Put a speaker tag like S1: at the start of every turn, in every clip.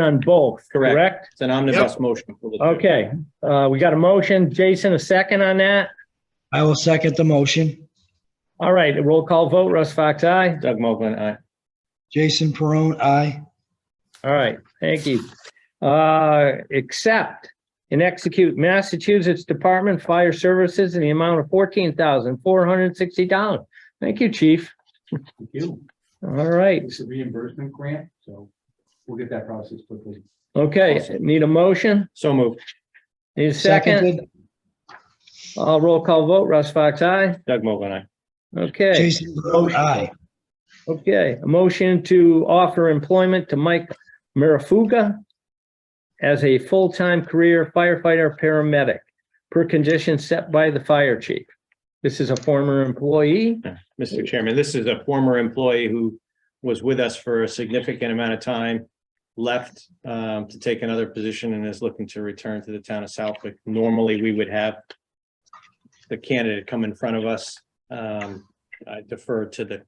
S1: on both,
S2: Correct.
S1: correct?
S2: It's an omnibus motion. for the two.
S1: Okay, uh, we got a motion. Jason, a second on that?
S3: I will second the motion.
S1: All right, roll call vote. Russ Fox, aye?
S2: Doug Mogul, aye.
S3: Jason Perone, aye.
S1: All right, thank you. Uh, accept and execute Massachusetts Department Fire Services in the amount of fourteen thousand four hundred sixty dollars. Thank you, chief.
S4: Thank you.
S1: All right,
S4: It's a reimbursement grant, so we'll get that process quickly.
S1: okay, need a motion?
S2: So moved.
S1: Need a second?
S3: Seconded.
S1: Uh, roll call vote. Russ Fox, aye?
S2: Doug Mogul, aye.
S1: Okay,
S3: Jason Perone, aye.
S1: okay. A motion to offer employment to Mike Marafuga as a full-time career firefighter paramedic per condition set by the fire chief. This is a former employee.
S2: Mr. Chairman, this is a former employee who was with us for a significant amount of time, left um, to take another position and is looking to return to the town of Southwick. Normally, we would have the candidate come in front of us. Um, I defer to the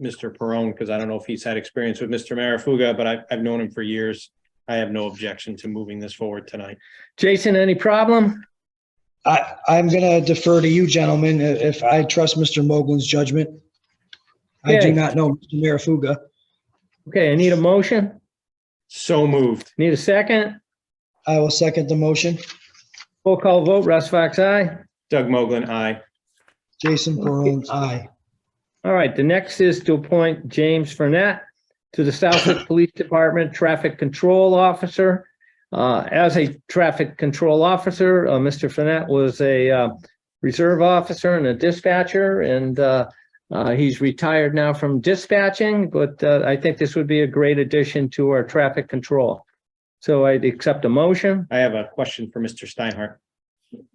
S2: Mr. Perone because I don't know if he's had experience with Mr. Marafuga, but I've, I've known him for years. I have no objection to moving this forward tonight.
S1: Jason, any problem?
S3: I, I'm gonna defer to you gentlemen i- if I trust Mr. Mogul's judgment. I
S1: Okay.
S3: do not know Mr. Marafuga.
S1: Okay, I need a motion.
S2: So moved.
S1: Need a second?
S3: I will second the motion.
S1: Roll call vote. Russ Fox, aye?
S2: Doug Mogul, aye.
S3: Jason Perone, aye.
S1: All right, the next is to appoint James Fernet to the Southwick Police Department Traffic Control Officer. Uh, As a traffic control officer, uh, Mr. Fernet was a uh, reserve officer and a dispatcher, and uh, uh, he's retired now from dispatching, but uh, I think this would be a great addition to our traffic control. So I'd accept a motion.
S2: I have a question for Mr. Steinhardt.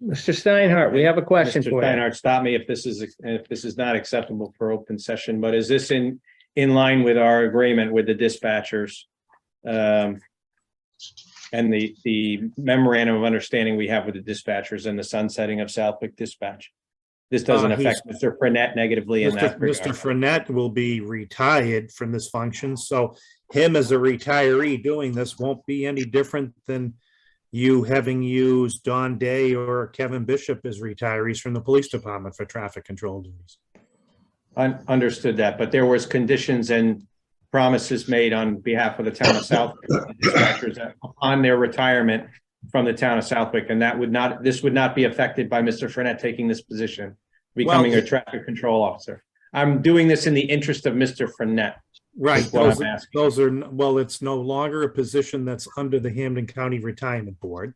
S1: Mr. Steinhardt, we have a question
S2: Mr.
S1: for you.
S2: Steinhardt, stop me if this is, if this is not acceptable for open session, but is this in, in line with our agreement with the dispatchers? Um, and the, the memorandum of understanding we have with the dispatchers and the sunsetting of Southwick Dispatch? This doesn't
S5: Uh,
S2: affect Mr. Prenette negatively in
S5: Mr.
S2: that regard.
S5: Mr. Frenette will be retired from this function, so him as a retiree doing this won't be any different than you having used Don Day or Kevin Bishop as retirees from the police department for traffic control duties.
S2: Un- understood that, but there was conditions and promises made on behalf of the town of Southwick dispatchers that upon their retirement from the town of Southwick, and that would not, this would not be affected by Mr. Frenette taking this position, becoming a
S5: Well-
S2: traffic control officer. I'm doing this in the interest of Mr. Frenette,
S5: Right,
S2: is what
S5: those,
S2: I'm asking.
S5: those are, n- well, it's no longer a position that's under the Hamden County Retirement Board.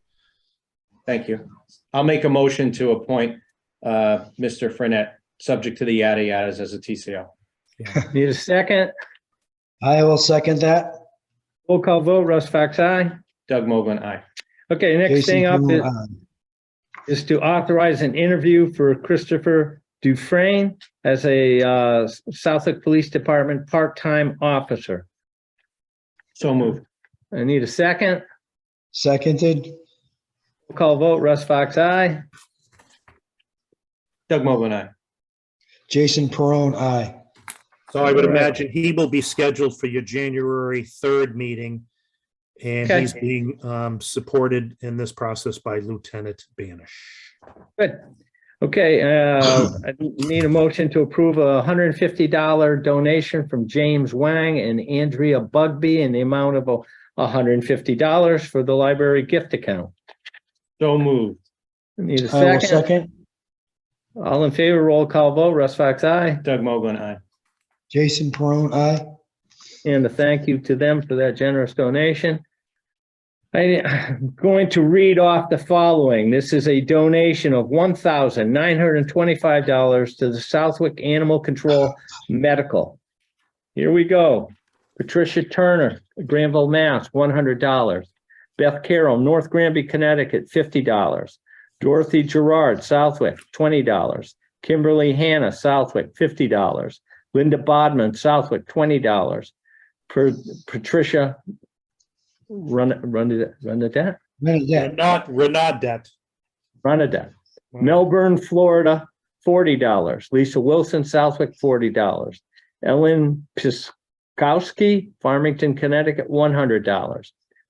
S2: Thank you. I'll make a motion to appoint uh, Mr. Frenette, subject to the yada yadas as a TCO.
S1: Need a second?
S3: I will second that.
S1: Roll call vote. Russ Fox, aye?
S2: Doug Mogul, aye.
S1: Okay, next
S3: Jason
S1: thing up is.
S3: Perone, aye.
S1: is to authorize an interview for Christopher Dufrain as a uh, Southwick Police Department part-time officer.
S2: So moved.
S1: I need a second.
S3: Seconded.
S1: Roll Call vote, Russ Fox, aye.
S2: Doug Mogul, aye.
S3: Jason Perone, aye.
S5: So I would
S1: All right.
S5: imagine he will be scheduled for your January third meeting. And
S1: Okay.
S5: he's being um supported in this process by Lieutenant Banish.
S1: Good. Okay, uh, I need a motion to approve a hundred and fifty dollar donation from James Wang and Andrea Bugby in the amount of hundred and fifty dollars for the library gift account.
S2: So moved.
S1: I Need a
S3: I will
S1: second.
S3: second.
S1: All in favor, roll call vote, Russ Fox, aye.
S2: Doug Mogul, aye.
S3: Jason Perone, aye.
S1: and a thank you to them for that generous donation. I- I'm going to read off the following. This is a donation of one thousand nine hundred and twenty-five dollars to the Southwick Animal Control Medical. Here we go. Patricia Turner, Granville, Mass, one hundred dollars. Beth Carroll, North Granby, Connecticut, fifty dollars. Dorothy Gerard, Southwick, twenty dollars. Kimberly Hannah, Southwick, fifty dollars. Linda Bodman, Southwick, twenty dollars. Per Patricia. Run, run it, run it down,
S3: Benedette,
S5: Not, we're not debt.
S1: run it down. Melbourne, Florida, forty dollars. Lisa Wilson, Southwick, forty dollars. Ellen Piskowski, Farmington, Connecticut, one hundred dollars.